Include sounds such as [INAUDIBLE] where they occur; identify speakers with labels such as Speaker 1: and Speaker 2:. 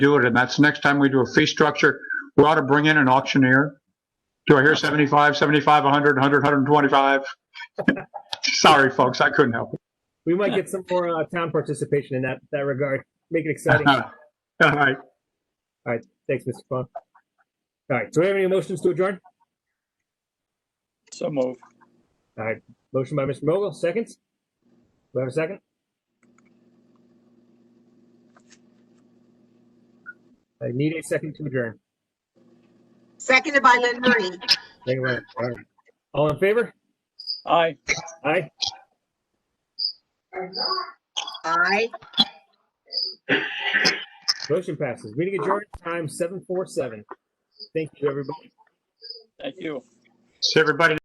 Speaker 1: do it, and that's next time we do a fee structure, we ought to bring in an auctioneer. Do I hear 75, 75, 100, 100, 125? [LAUGHS] Sorry, folks, I couldn't help
Speaker 2: We might get some more uh, town participation in that, that regard. Make it
Speaker 1: it. [LAUGHS]
Speaker 2: exciting.
Speaker 1: All right,
Speaker 2: Thanks, Mr. Fong. All right, do we have any motions to adjourn?
Speaker 3: So move.
Speaker 2: Motion by Mr. Mogul, seconds? Do we have a second? I need a second to adjourn.
Speaker 4: Seconded by Lynn Marie.
Speaker 2: Thank you, Ryan. All right. All in favor?
Speaker 3: Aye.
Speaker 2: Aye.
Speaker 4: Aye.
Speaker 2: Motion passes. Meeting adjourned, time 7:47. Thank you, everybody.
Speaker 3: Thank you.
Speaker 1: so everybody